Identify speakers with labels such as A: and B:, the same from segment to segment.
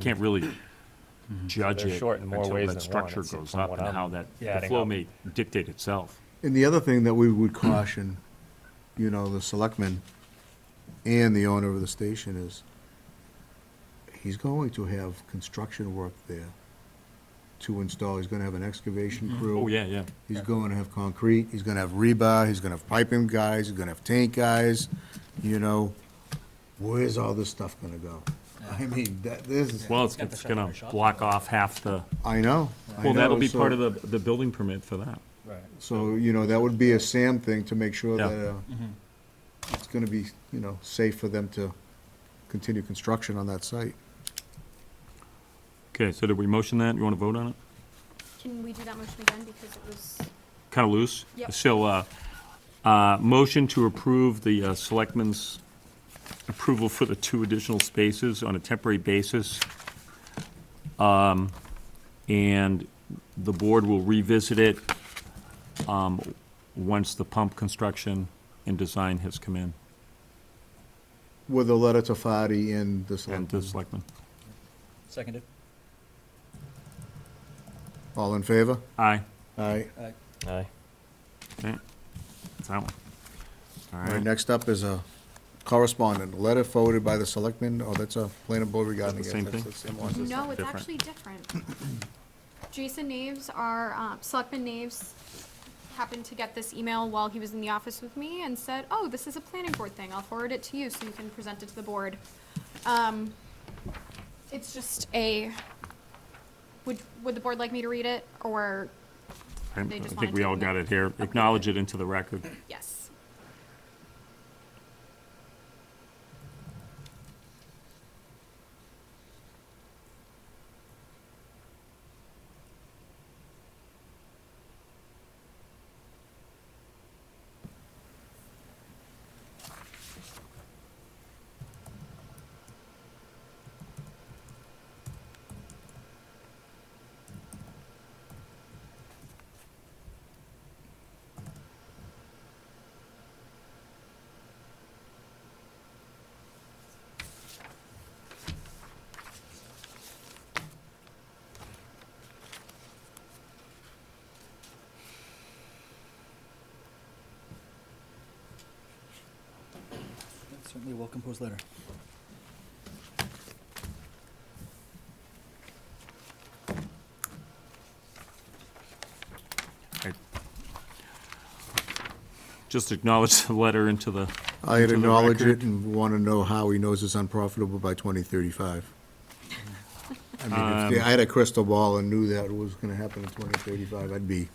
A: can't really judge
B: Mm-hmm. They're
A: it
B: short in more
A: until
B: ways
A: that
B: than
A: structure
B: one, it seems,
A: goes
B: from
A: up
B: what
A: and
B: I'm
A: how that, the
B: adding
A: flow
B: up.
A: may dictate itself.
C: And the other thing that we would caution, you know, the selectman and the owner of the station is, he's going to have construction work there to install, he's gonna have an excavation crew.
A: Oh, yeah, yeah.
C: He's going to have concrete, he's gonna have rebar, he's gonna have piping guys, he's gonna have tank guys, you know, where's all this stuff gonna go? I mean, that, this is,
A: Well, it's,
D: Got the
A: it's gonna
D: separate shop.
A: block off half the,
C: I know, I
A: well,
C: know,
A: that'll be
C: so-
A: part of the, the building permit for that.
D: Right.
C: So, you know, that would be a Sam thing to make sure
A: Yeah.
C: that uh, it's gonna be, you know, safe for them to continue construction on that site.
A: Okay, so did we motion that? You wanna vote on it?
E: Can we do that motion again because it was,
A: Kinda loose?
E: Yep.
A: So, uh, uh, motion to approve the uh, selectmen's approval for the two additional spaces on a temporary basis. Um, and the board will revisit it, um, once the pump construction and design has come in,
C: With a letter to Fadi and the
A: and the selectmen.
C: selectmen.
D: Seconded.
C: All in favor?
A: Aye.
C: Aye.
D: Aye.
B: Aye.
A: Okay, It's that one. All
C: All right,
A: right,
C: next up is a correspondent, a letter forwarded by the selectmen, oh, that's a planning board regarding.
A: Is that the
C: it.
A: same
C: That's the same one.
E: no, it's
A: different.
E: actually different. Jason Naves, our, uh, Selectman Naves, happened to get this email while he was in the office with me and said, oh, this is a planning board thing, I'll forward it to you so you can present it to the board. Um, it's just a, would, would the board like me to read it, or
A: I
E: they just
A: think
E: wanna
A: we
E: take
A: all
E: a
A: got
E: minute.
A: it here. Acknowledge it into the record.
E: Yes.
D: Certainly a well-composed letter.
A: Okay. Just acknowledge the letter into the,
C: I
A: Into the
C: acknowledge
A: record.
C: it and wanna know how he knows it's unprofitable by twenty thirty-five. I
A: Um,
C: mean, if the- I had a crystal ball and knew that was gonna happen in twenty thirty-five, I'd be,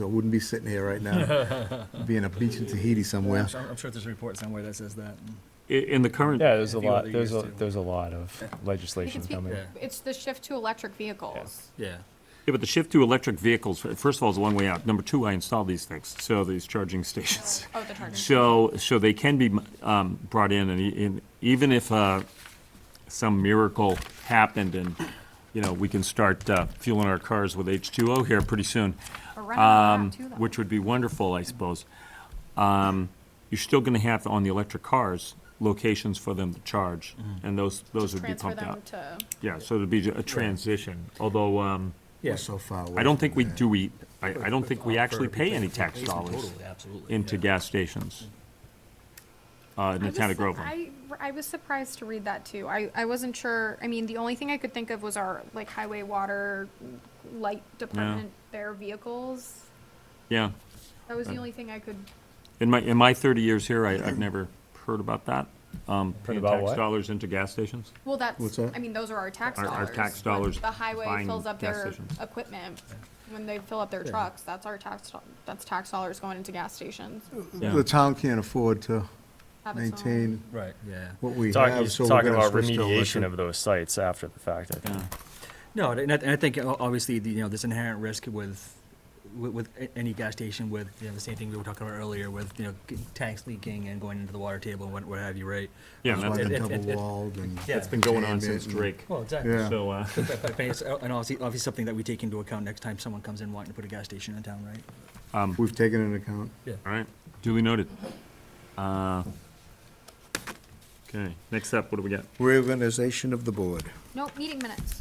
C: I wouldn't be sitting here right now, be in a beach in Tahiti
D: I'm
C: somewhere.
D: sure, I'm sure there's a report somewhere that says that. and-
A: i- in the current,
B: Yeah, there's a
D: I think what
B: lot,
D: they
B: there's a,
D: used to-
B: there's a lot of
E: We can
B: legislation
E: speak-
B: coming.
D: Yeah.
E: It's the shift to electric vehicles.
D: Yeah.
A: yeah, but the shift to electric vehicles, first of all, is a long way out. Number two, I installed these things, so these charging stations.
E: Oh, the charging.
A: So, so they can be um, brought in, and e- and even if uh, some miracle happened and, you know, we can start uh, fueling our cars with H2O here pretty soon,
E: Or
A: um,
E: rent them out, too, though.
A: which would be wonderful, I suppose. Um, You're still going to have, on the electric cars, locations for them to charge, and those, those would be
E: Mm. Transfer
A: pumped
E: them
A: out.
E: to,
A: Yeah, so it'd be a transition, although um,
C: We're so far away
A: I don't think
C: from
A: we,
C: that.
A: do we, I I don't think we actually pay any tax dollars
D: Totally, absolutely.
A: into gas stations uh, in
E: I
A: the
E: was
A: town of
E: su-
A: Groveland.
E: I, I was surprised to read that too. I, I wasn't sure, I mean, the only thing I could think of was our, like, highway, water, light department, their vehicles.
A: Yeah.
E: That was the
A: Right.
E: only thing I could,
A: In my, in my 30 years here, I, I've never heard about that. Um, Paying
B: about
A: tax
B: what?
A: dollars into gas stations.
E: well, that's,
C: What's that?
E: I mean, those are our tax
A: Our-
E: dollars.
A: our tax
E: When
A: dollars
E: The highway
A: buying
E: fills up
A: gas
E: their
A: stations.
E: equipment, when they fill up their
D: Yeah.
E: trucks, that's our tax, do- that's tax dollars going into gas stations.
A: Yeah.
C: The town can't afford to
E: Have its own-
C: maintain
D: Right, yeah.
C: what we
B: Talking,
C: have,
B: he's
C: so we're
B: talking
C: gonna
B: about
C: switch to
B: remediation
C: electric.
B: of those sites after the fact, I think.
A: Yeah.
D: No, and I, and I think uh, obviously, the, you know, there's inherent risk with, with, with a- any gas station with, you know, the same thing we were talking about earlier with, you know, g- tanks leaking and going into the water table and what, what have you, right?
A: Yeah, and
C: That's why
A: that's-
D: it-
C: they're
D: it- it- it-
C: double-walled and.
D: Yeah. It's
A: been going on
C: containment
A: since
C: and-
A: Drake.
D: Well, exactly.
C: Yeah.
A: So, uh,
D: But, but, but it's, uh, and obviously, obviously something that we take into account next time someone comes in wanting to put a gas station in town, right?
A: Um,
C: We've taken into account.
A: all right, duly noted. Uh,
F: Okay, next up, what do we got?
A: Reorganization of the board.
C: Nope, meeting minutes.